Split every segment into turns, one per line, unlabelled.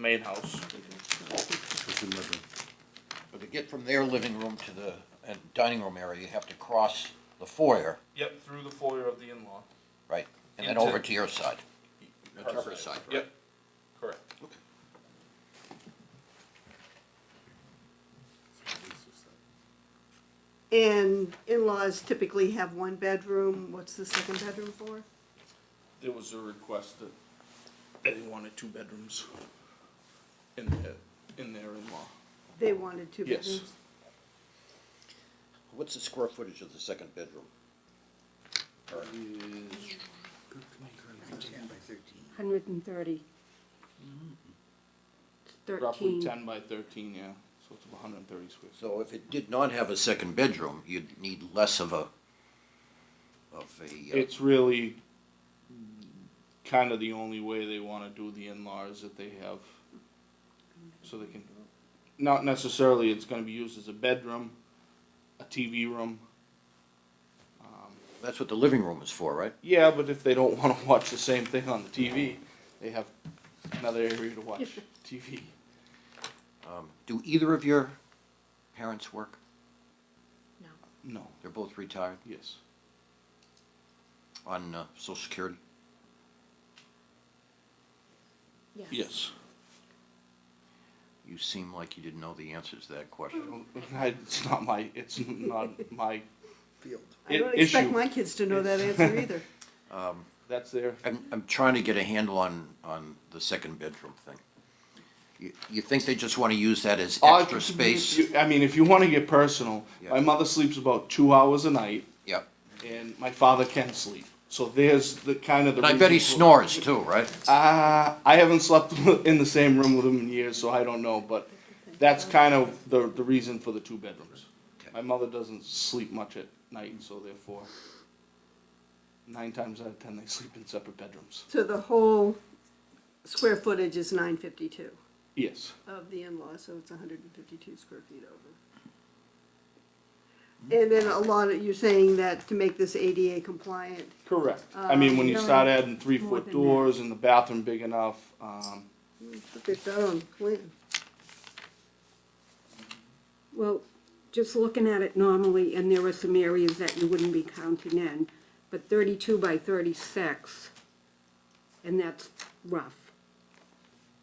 main house.
But to get from their living room to the uh, dining room area, you have to cross the foyer,
Yep, through the foyer of the in-law.
right? And then
Into-
over to your side, the Tucker side, right?
Yep, correct.
And in-laws typically have one bedroom, what's the second bedroom for?
There was a request that they wanted two bedrooms in their, in their in-law.
They wanted two
Yes.
bedrooms?
What's the square footage of the second bedroom? Or-
Hundred and thirty.
Roughly
Mm-hmm.
Thirteen.
ten by thirteen, yeah, so it's hundred and thirty square. feet.
So if it did not have a second bedroom, you'd need less of a, of a, uh,
It's really kind of the only way they wanna do the in-laws that they have. So they can, not necessarily it's gonna be used as a bedroom, a TV room. Um,
that's what the living room is for, right?
Yeah, but if they don't want to watch the same thing on the TV, they have another area to watch TV.
Um, Do either of your parents work?
No,
They're both retired
yes.
on uh, social security?
Yes.
You seem like you didn't know the answers to that question.
I- It's not my, it's not my,
I don't
Issue.
expect my kids to know that answer either.
that's their,
I'm, I'm trying to get a handle on, on the second bedroom thing. You, you think they just wanna use that as
Oh,
extra space?
you- I mean, if you want to get personal,
Yeah.
my mother sleeps about two hours a night,
Yeah,
and my father can sleep. So there's the kind of the.
and I bet he
reason for-
snores too, right?
Uh, I haven't slept in the same room with him in years, so I don't know, but that's kind of the, the reason for the two bedrooms. My mother doesn't sleep much at night, so therefore, nine times out of ten, they sleep in separate bedrooms.
So the whole square footage is nine fifty-two
Yes,
of the in-law, so it's hundred and fifty-two square feet over. And then a lot of, you're saying that to make this ADA compliant,
correct.
Uh,
I mean, when you
Um,
start adding
more
three-foot
than that.
doors and the bathroom big enough, um,
put that down on plan.
Well, just looking at it normally, and there were some areas that you wouldn't be counting in, but thirty-two by thirty-six, and that's rough,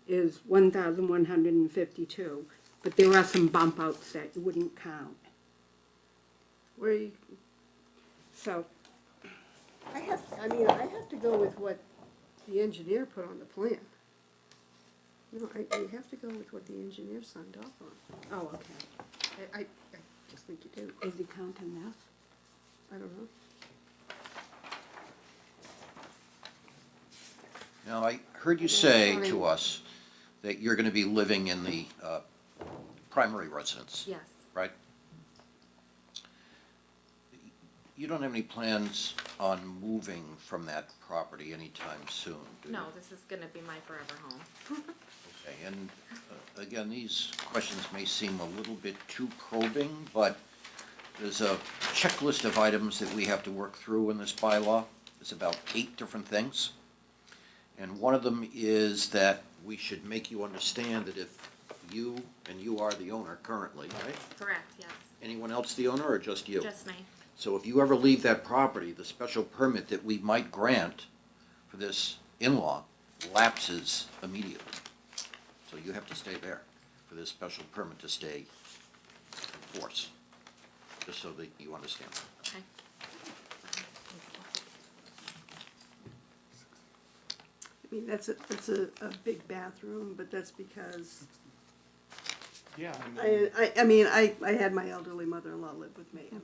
is one thousand one hundred and fifty-two, but there are some bump outs that you wouldn't count,
Where you,
so.
I have, I mean, I have to go with what the engineer put on the plan. No, I, you have to go with what the engineer signed off on.
Oh, okay.
I, I, I just think you do.
Is he counting this?
I don't know.
Now, I heard you say to us that you're gonna be living in the, uh, primary residence,
Yes.
right? You don't have any plans on moving from that property anytime soon, do you?
No, this is gonna be my forever home.
Okay, and uh, again, these questions may seem a little bit too probing, but there's a checklist of items that we have to work through in this bylaw. It's about eight different things. And one of them is that we should make you understand that if you, and you are the owner currently, right?
Correct, yes.
Anyone else the owner or just you?
Just me.
So if you ever leave that property, the special permit that we might grant for this in-law lapses immediately. So you have to stay there for this special permit to stay in force, just so that you understand.
Okay.
I mean, that's a, that's a, a big bathroom, but that's because,
yeah, I mean,
I, I, I mean, I, I had my elderly mother-in-law live with me. and-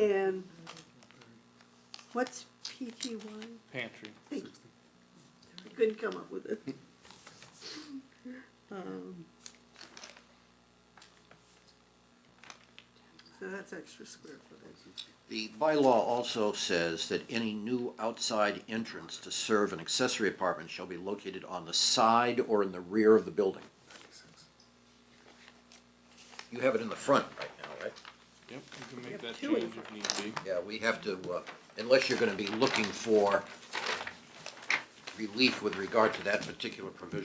And what's PT one?
pantry.
Thank you. I couldn't come up with it. Um, So that's extra square footage.
The bylaw also says that any new outside entrance to serve an accessory apartment shall be located on the side or in the rear of the building. You have it in the front right now, right?
Yep, you can make
have
that
two in
change if need be.
Yeah, we have to, uh, unless you're gonna be looking for relief with regard to that particular provision